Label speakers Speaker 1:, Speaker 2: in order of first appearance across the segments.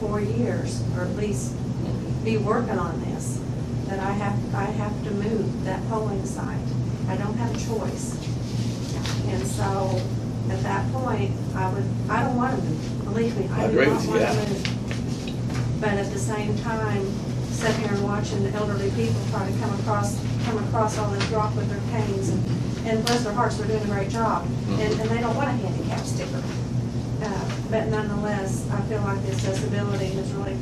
Speaker 1: four years, or at least be working on this, that I have, I have to move that polling site. I don't have a choice. And so, at that point, I would, I don't want to move, believe me,
Speaker 2: I
Speaker 1: I do
Speaker 2: agree
Speaker 1: not
Speaker 2: with you,
Speaker 1: want
Speaker 2: yeah.
Speaker 1: to move. But at the same time, sitting here and watching the elderly people try to come across, come across all this rock with their canes, and and bless their hearts, they're doing a great job, and, and they don't want a handicap sticker. Uh, But nonetheless, I feel like the accessibility is really,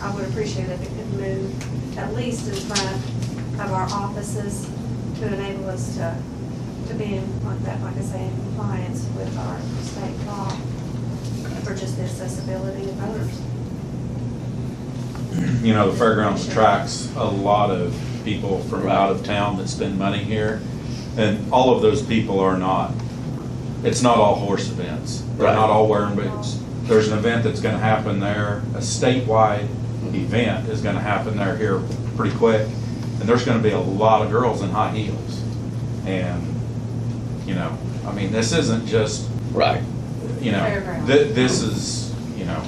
Speaker 1: I would appreciate if it could move at least in front of our offices to enable us to, to be in, like that, like I say, in compliance with our state law for just the accessibility of voters.
Speaker 3: You know, the fairgrounds attracts a lot of people from
Speaker 2: Right.
Speaker 3: out of town that spend money here, and all of those people are not, it's not all horse events. They're
Speaker 2: Right.
Speaker 3: not all wearing boots. There's an event that's gonna happen there, a statewide event is gonna happen there here pretty quick, and there's gonna be a lot of girls in high heels. And, you know, I mean, this isn't just
Speaker 2: Right.
Speaker 3: you know,
Speaker 1: Fairground.
Speaker 3: thi- this is, you know,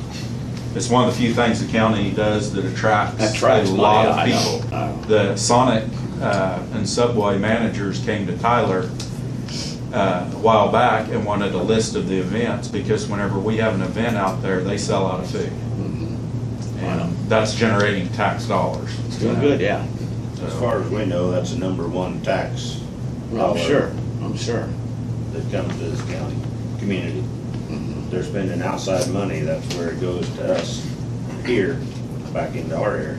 Speaker 3: it's one of the few things the county does that attracts
Speaker 2: Attracts
Speaker 3: a lot of
Speaker 2: money, I know, I know.
Speaker 3: people. The Sonic uh, and Subway managers came to Tyler uh, a while back and wanted a list of the events, because whenever we have an event out there, they sell out of food.
Speaker 2: Mm-hmm. Wow.
Speaker 3: And that's generating tax dollars.
Speaker 2: It's doing good, yeah.
Speaker 4: As far as we know, that's the number one tax
Speaker 2: I'm
Speaker 4: dollar
Speaker 2: Oh, sure, I'm sure.
Speaker 4: that comes to this county, community.
Speaker 2: Mm-hmm.
Speaker 4: They're spending outside money, that's where it goes to us here, back into our area.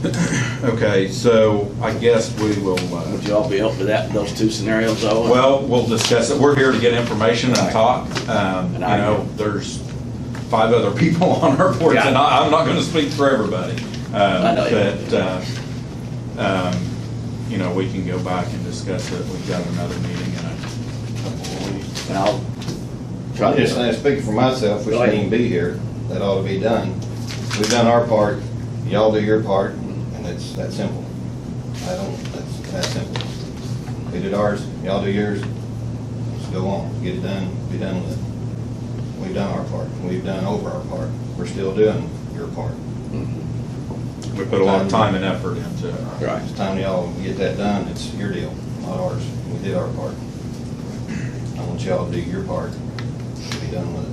Speaker 3: Okay, so I guess we will. uh,
Speaker 2: Would you all be up for that, those two scenarios though?
Speaker 3: Well, we'll discuss it. We're here to get information and talk. Um, You
Speaker 2: And I-
Speaker 3: know, there's five other people on our board,
Speaker 2: Yeah.
Speaker 3: and I- I'm not going to speak for everybody. Um,
Speaker 2: I know you don't.
Speaker 3: But, uh, um, you know, we can go back and discuss it. We've got another meeting in a couple of weeks.
Speaker 2: And I'll try
Speaker 5: I'm
Speaker 2: to.
Speaker 5: just saying, speaking for myself, we shouldn't even be here. That ought to be done. We've done our part, y'all do your part, and it's that simple. I don't, that's that simple. We did ours, y'all do yours. Let's go on, get it done, be done with it. We've done our part, we've done over our part. We're still doing your part.
Speaker 2: Mhm.
Speaker 3: We put a lot of time and effort into it.
Speaker 2: Right.
Speaker 5: It's time y'all get that done, it's your deal, not ours. We did our part. I want y'all to do your part, be done with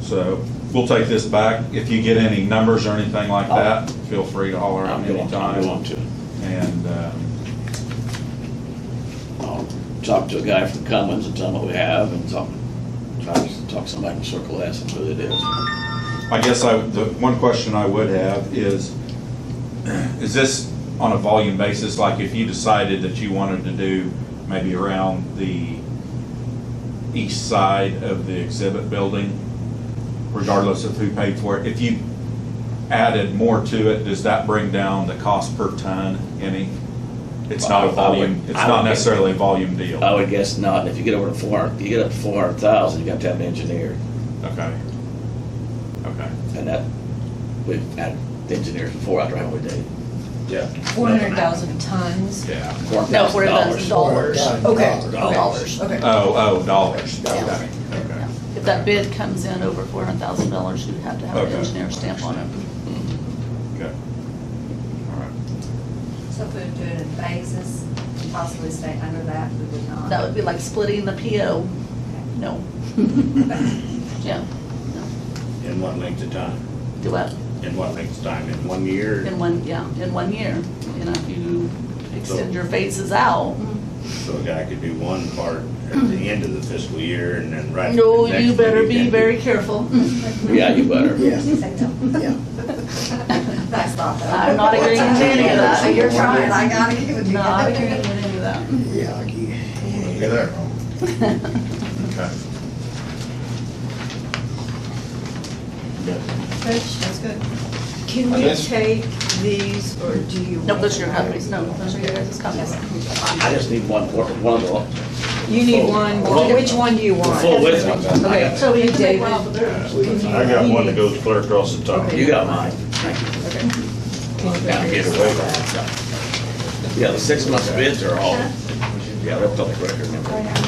Speaker 5: it.
Speaker 3: So we'll take this back. If you get any numbers or anything like
Speaker 2: I'll-
Speaker 3: that, feel free to holler
Speaker 2: Oh. I'll
Speaker 3: out
Speaker 2: go on, I'll go on
Speaker 3: anytime.
Speaker 2: to,
Speaker 3: And um,
Speaker 2: I'll talk to a guy from Cummins and tell him what we have and talk, try to talk to somebody from Circle S and who it is.
Speaker 3: I guess I, the one question I would have is, is this on a volume basis? Like if you decided that you wanted to do maybe around the east side of the exhibit building, regardless of who paid for it, if you added more to it, does that bring down the cost per ton any? It's not a
Speaker 2: Well, I would-
Speaker 3: volume, it's
Speaker 2: I
Speaker 3: not
Speaker 2: would- Oh.
Speaker 3: necessarily a volume deal.
Speaker 2: I would guess not. If you get over to four, if you get up to four hundred thousand, you have to have an engineer.
Speaker 3: Okay. Okay.
Speaker 2: And that, we've had engineers before out there, haven't we, Dave?
Speaker 4: Yeah.
Speaker 6: 400,000 tons?
Speaker 3: Yeah.
Speaker 6: No, 400,000 dollars. Okay, dollars, okay.
Speaker 3: Oh, oh, dollars.
Speaker 6: Yeah.
Speaker 3: Okay, okay.
Speaker 7: If that bid comes in over four hundred thousand dollars, you'd have to have an
Speaker 3: Okay.
Speaker 7: engineer stamp on it.
Speaker 3: Okay. All right.
Speaker 1: So if we do it in phases, possibly stay under that, we would not.
Speaker 7: That would be like splitting the PO, no. Yeah, no,
Speaker 4: In what length of time?
Speaker 7: do what,
Speaker 4: In what length of time? In one year?
Speaker 7: in one, yeah, in one year, you know, if you extend your phases out.
Speaker 4: So a guy could do one part at the end of the fiscal year and then right.
Speaker 7: No,
Speaker 4: the next
Speaker 7: you better
Speaker 4: one he
Speaker 7: be
Speaker 4: can
Speaker 7: very careful.
Speaker 2: Yeah, you better.
Speaker 1: Say no.
Speaker 8: Yeah.
Speaker 1: That's not that.
Speaker 7: I'm not agreeing to any of that.
Speaker 1: So you're trying, I gotta give it to you.
Speaker 7: Not agreeing with any of that.
Speaker 8: Yeah, you-
Speaker 5: Look at that.
Speaker 3: Okay.
Speaker 6: That's good. Can
Speaker 5: I
Speaker 6: we
Speaker 5: guess-
Speaker 6: take these, or do you?
Speaker 7: No, those are your companies, no, those are your guys' companies.
Speaker 2: I just need one, quar- one of the,
Speaker 6: You need one,
Speaker 2: Full.
Speaker 6: which one do you
Speaker 2: the
Speaker 6: want?
Speaker 2: full width one.
Speaker 6: Okay,
Speaker 7: So we need to make
Speaker 6: David.
Speaker 7: one off the bill.
Speaker 4: I got one that goes clear across the top.
Speaker 2: You got mine. Now get away from it. Yeah, the six months bids are all, yeah, they're public record, remember?